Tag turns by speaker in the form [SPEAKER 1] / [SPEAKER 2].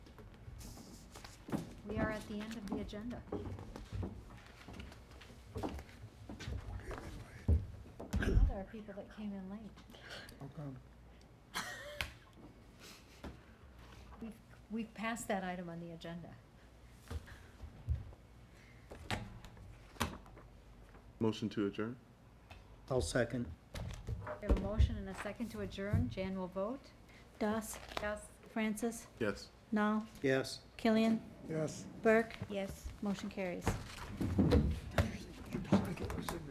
[SPEAKER 1] the end of the agenda. Now Oh, there are people that came in late.
[SPEAKER 2] How come?
[SPEAKER 1] We've, we've passed that item on the agenda.
[SPEAKER 3] Motion to adjourn?
[SPEAKER 2] I'll second.
[SPEAKER 1] We have a motion and a second to adjourn. Jan will vote.
[SPEAKER 4] Das,
[SPEAKER 1] Yes.
[SPEAKER 4] Francis,
[SPEAKER 3] Yes.
[SPEAKER 4] Nall,
[SPEAKER 2] Yes.
[SPEAKER 4] Killian,
[SPEAKER 2] Yes.
[SPEAKER 4] Burke,
[SPEAKER 1] Yes.
[SPEAKER 4] motion carries.